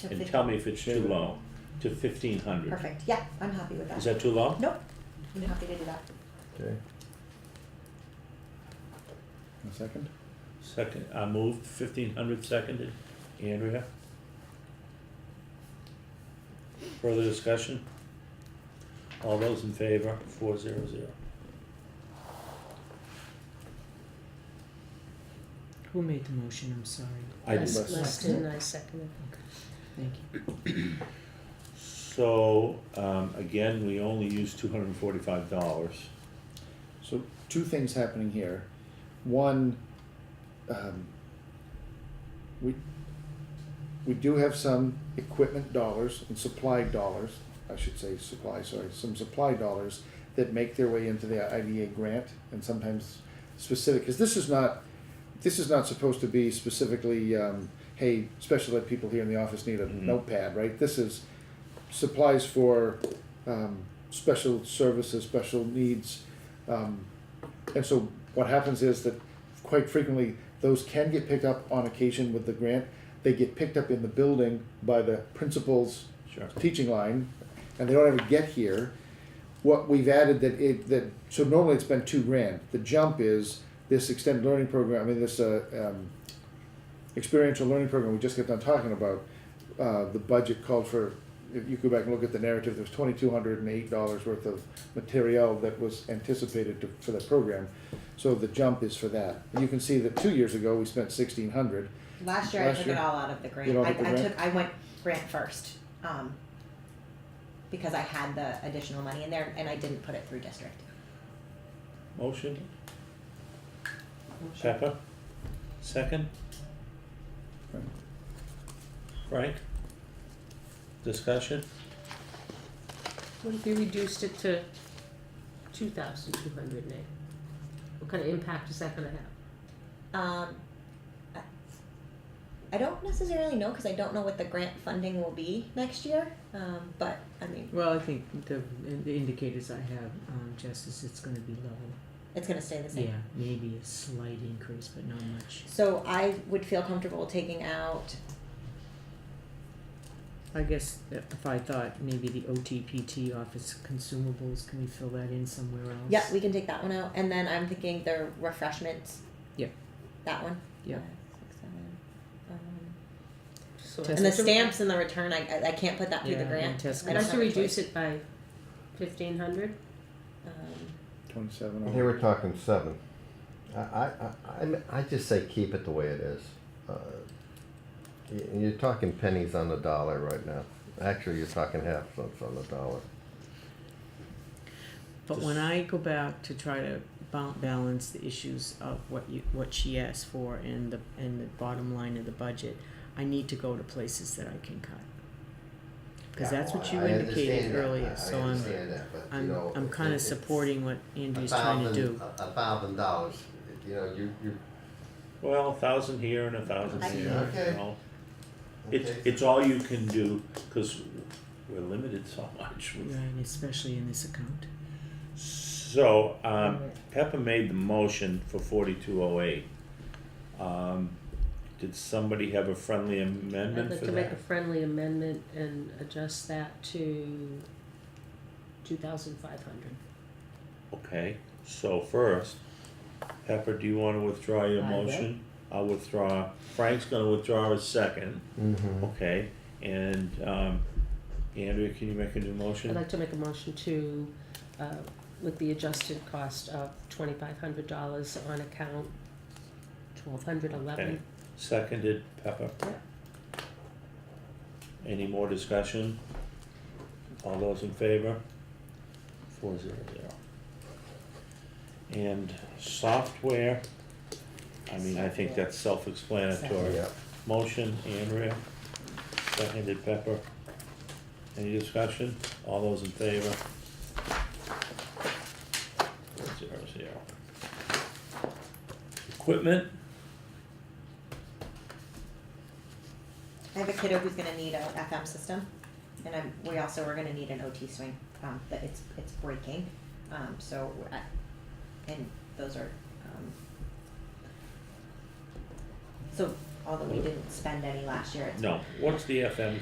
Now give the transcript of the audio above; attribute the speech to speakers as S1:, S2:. S1: To
S2: and
S1: fif-
S2: tell me if it's too low, to fifteen hundred.
S1: Perfect, yeah, I'm happy with
S2: Is
S1: that.
S2: that too low?
S1: Nope, I'm happy to do that.
S3: Okay. A second?
S2: Second, I moved fifteen hundred, seconded, Andrea? Further discussion? All those in favor, four zero zero.
S4: Who made the motion? I'm sorry.
S2: I did.
S3: Less-
S5: Les-
S3: less-
S5: Leston, I seconded.
S4: Thank you.
S2: So, um, again, we only use two hundred and forty-five dollars.
S3: So two things happening here. One, um, we, we do have some equipment dollars and supply dollars, I should say supply, sorry, some supply dollars that make their way into the IDA grant and sometimes specific, because this is not, this is not supposed to be specifically, um, hey, special ed people here in the office need a
S2: Mhm.
S3: notepad, right? This is supplies for, um, special services, special needs, um, and so what happens is that quite frequently, those can get picked up on occasion with the grant. They get picked up in the building by the principal's
S2: Sure.
S3: teaching line, and they don't ever get here. What we've added that it, that, so normally it's been two grand. The jump is this extended learning program, I mean, this, uh, um, experiential learning program we just got done talking about. Uh, the budget called for, if you go back and look at the narrative, there's twenty-two hundred and eight dollars worth of material that was anticipated to, for that program. So the jump is for that. And You can see that two years ago, we spent sixteen hundred.
S1: Last year I
S3: Last
S1: took
S3: year?
S1: it all out of the grant.
S3: all
S1: I,
S3: took the
S1: I
S3: grant?
S1: took, I went grant first, um, because I had the additional money in there and I didn't put it through district.
S2: Motion? Pepper? Second?
S3: Frank.
S2: Frank? Discussion?
S5: What if we reduced it to two thousand two hundred and eight? What kind of impact is that gonna have?
S1: Um, I- I don't necessarily know, cause I don't know what the grant funding will be next year, um, but, I mean,
S4: Well, I think the, the indicators I have, um, Jess, is it's gonna be level.
S1: it's gonna stay the same.
S4: Yeah, maybe a slight increase, but not much.
S1: So I would feel comfortable taking out,
S4: I guess that if I thought maybe the OTPT office consumables, can we fill that in somewhere else?
S1: yeah, we can take that one out, and then I'm thinking the refreshments.
S4: Yep.
S1: That one.
S4: Yep.
S1: Five, six, seven, um,
S5: So
S4: And
S1: And the
S5: let's-
S1: stamps and the return, I, I- I can't put that through the
S4: Yeah, and
S1: grant.
S4: test
S1: I
S5: I'd
S1: don't
S5: like
S1: have
S5: to
S1: a
S5: reduce
S1: choice.
S5: it by fifteen hundred.
S1: Um,
S3: Twenty-seven.
S6: They were talking seven. I, I, I, I'm- I just say keep it the way it is. Uh, y- You're talking pennies on the dollar right now. Actually, you're talking half cents on the dollar.
S4: But when I go back to try to ba- balance the issues of what you, what she asked for and the, and the bottom line of the budget, I need to go to places that I can cut. Cause that's what you
S6: I
S4: indicated
S6: understand that.
S4: earlier,
S6: I-
S4: so
S6: I
S4: I'm,
S6: understand that, but, you
S4: I'm,
S6: know,
S4: I'm
S6: it-
S4: kinda
S6: it's
S4: supporting what
S6: a
S4: Andrew's trying to
S6: thousand-
S4: do.
S6: A a thousand dollars, you know, you, you.
S2: Well, a thousand here and a thousand
S1: I-
S2: here,
S6: Okay.
S2: you know? It's,
S6: okay.
S2: it's all you can do, cause we're limited so much.
S4: Right, and especially in this account.
S2: So, um, Pepper made the motion for forty-two oh eight. Um, did somebody have a friendly
S5: I'd
S2: amendment
S5: like
S2: for
S5: to make
S2: that?
S5: a friendly amendment and adjust that to two thousand five hundred.
S2: Okay, so first, Pepper, do you wanna withdraw your
S5: I will.
S2: motion? I'll withdraw, Frank's gonna withdraw his second, Mm-hmm.
S6: Mhm.
S2: okay, and, um, Andrea, can you make a new
S5: I'd
S2: motion?
S5: like to make a motion to, uh, with the adjusted cost of twenty-five hundred dollars on account twelve hundred
S2: Okay.
S5: eleven.
S2: Seconded, Pepper. Any more discussion? All those in favor? Four zero zero. And software, I mean, I think that's self-explanatory.
S6: Yeah.
S2: Motion, Andrea, seconded Pepper. Any discussion? All those in favor? Four zero zero. Equipment,
S1: I have a kiddo who's gonna need a FM system, and I'm, we also are gonna need an OT swing, um, but it's, it's breaking, um, so, I- and those are, um. So, although we didn't spend any last year, it's
S2: no, what's the FM